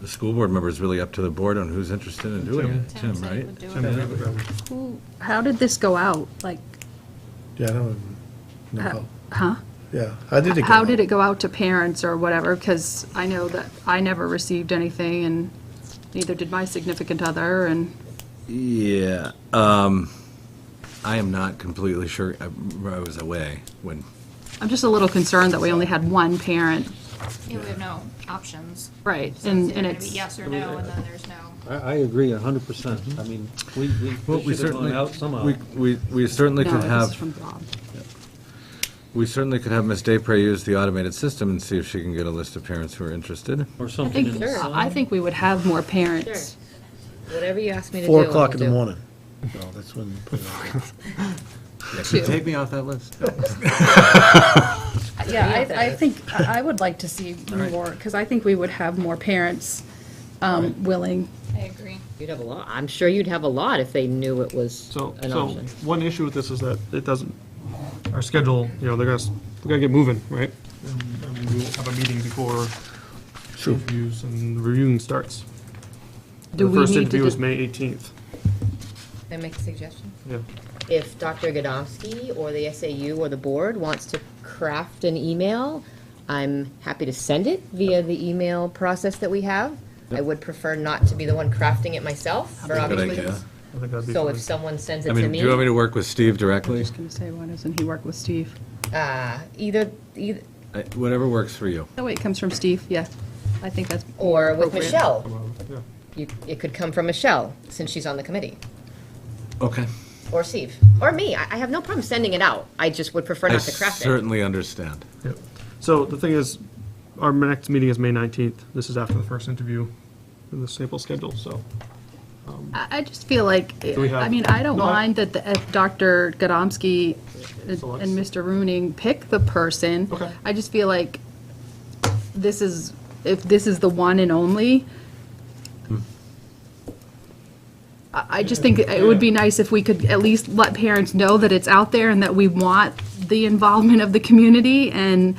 the school board member is really up to the board on who's interested in doing it. Tim, Tim right? would do Tim, it. that would- Who, how did this go out? Like, Yeah, I don't uh, know. huh? Yeah, how did it go? How did it go out to parents or whatever? Because I know that I never received anything, and neither did my significant other, and Yeah, um, I am not completely sure, I I was away when, I'm just a little concerned that we only had one parent. Yeah, we have no options. Right, So and, either and gonna be it's, Yes or no, and then there's no. I, I agree a hundred percent. I mean, we, we- well, we we should have certainly, gone out somehow. we, we we certainly no, could this is have, from Bob. we certainly could have Ms. Daypre use the automated system and see if she can get a list of parents who are interested. Or I something in think, the sun. I think we would have more parents. Whatever you ask me to do. Four I o'clock in will the do. morning. No, that's when. you put it out there. Two. Take me off that list. Yeah, I, I think, I I would like to see more, because I think we would have more parents um, willing. I agree. You'd have a lot, I'm sure you'd have a lot if they knew it was So, an so option. one issue with this is that it doesn't, our schedule, you know, they're gonna, s- we gotta get moving, right? And and we'll have a meeting before interviews and reviewing starts. Do The we first need to interview is dis- May 18th, Can I make a suggestion? yeah. If Dr. Godomsky or the SAU or the board wants to craft an email, I'm happy to send it via the email process that we have. I would prefer not to be the one crafting it myself, for Good obvious idea. reasons. I think that'd be So fine. if someone sends I it to mean, do me, you want me to work with Steve I'm directly? just going to say, why doesn't he work with Steve? uh, either, either, I- Whatever works for you. Oh, wait, it comes from Steve, yeah. I think that's. or with appropriate. Michelle. Well, yeah. You, it could come from Michelle, since she's on the committee. Okay. or Steve, or me. I, I have no problem sending it out. I just would prefer I not to craft it. certainly understand. Yep. So the thing is, our next meeting is May 19th. This is after the first interview in the sample schedule, so. I, I just feel like, we I have- mean, I don't No, I- mind that the, if Dr. Godomsky and Selects. and Mr. Rooning pick the person. Okay. I just feel like this is, if this is the one and only, I, I just think it would be nice if we could at least let parents know that it's out there and that we want the involvement of the community and,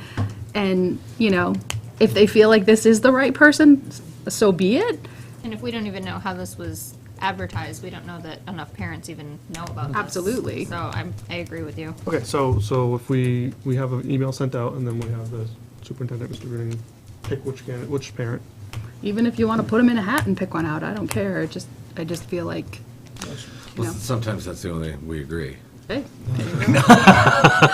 and, you know, if they feel like this is the right person, s- so be it. And if we don't even know how this was advertised, we don't know that enough parents even know about this. Absolutely. So I'm, I agree with you. Okay, so, so if we, we have an email sent out, and then we have the superintendent, Mr. Green, pick which candidate, which parent. Even if you want to put them in a hat and pick one out, I don't care. It just, I just feel like, you know, Sometimes that's the only, we agree. hey.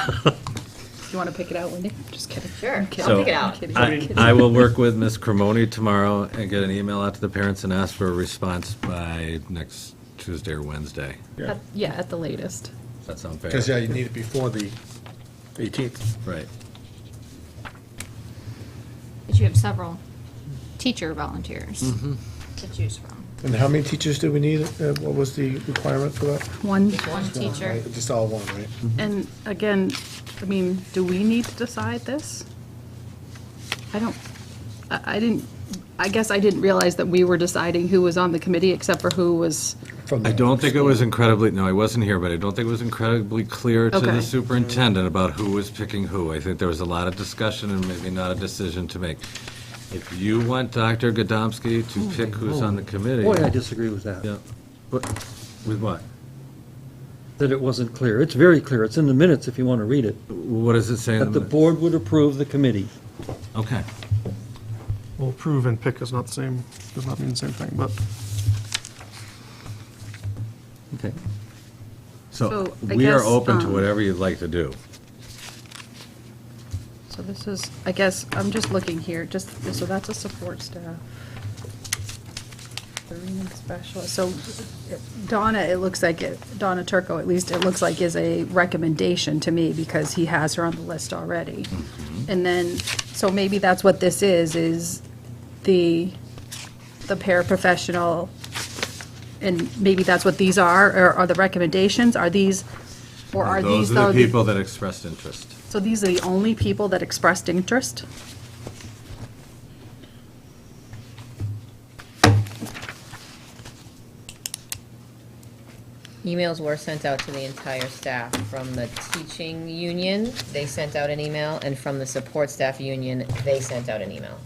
You want to pick it out, Wendy? Just kidding. Sure. I'm kidding. I'll So- pick it I'm out. kidding. I'm I, kidding. I will work with Ms. Cremoni tomorrow and get an email out to the parents and ask for a response by next Tuesday or Wednesday. At- Yeah, at the latest. Does that sound fair? Because, yeah, you need it before the 18th. Right. But you have several teacher volunteers to choose from. And how many teachers do we need? Uh, What was the requirement for that? One, One teacher. Just all one, right? and again, I mean, do we need to decide this? I don't, I, I didn't, I guess I didn't realize that we were deciding who was on the committee except for who was, From I the- don't think it was incredibly, no, I wasn't here, but I don't think it was incredibly clear to Okay. the superintendent about who was picking who. I think there was a lot of discussion and maybe not a decision to make. If you want Dr. Godomsky Oh, to pick who's on the committee. Boy, I disagree with that. Yeah. What- With what? That it wasn't clear. It's very clear. It's in the minutes if you want to read it. What does it say in That the the? mi- board would approve the committee. Okay. Well, approve and pick is not the same, does not mean the same thing, but. Okay. So So, I we are guess, open to um, whatever you'd like to do. so this is, I guess, I'm just looking here, just, so that's a support staff. The reading specialist, so Donna, it looks like, it- Donna Turco, at least, it looks like is a recommendation to me because he has her on the list already. Mm-hmm. And then, so maybe that's what this is, is the, the paraprofessional, and maybe that's what these are, or are the recommendations, are these, or are these? Those are the the- people that expressed interest. So these are the only people that expressed interest? Emails were sent out to the entire staff from the teaching union. They sent out an email, and from the support staff union, they sent out an email.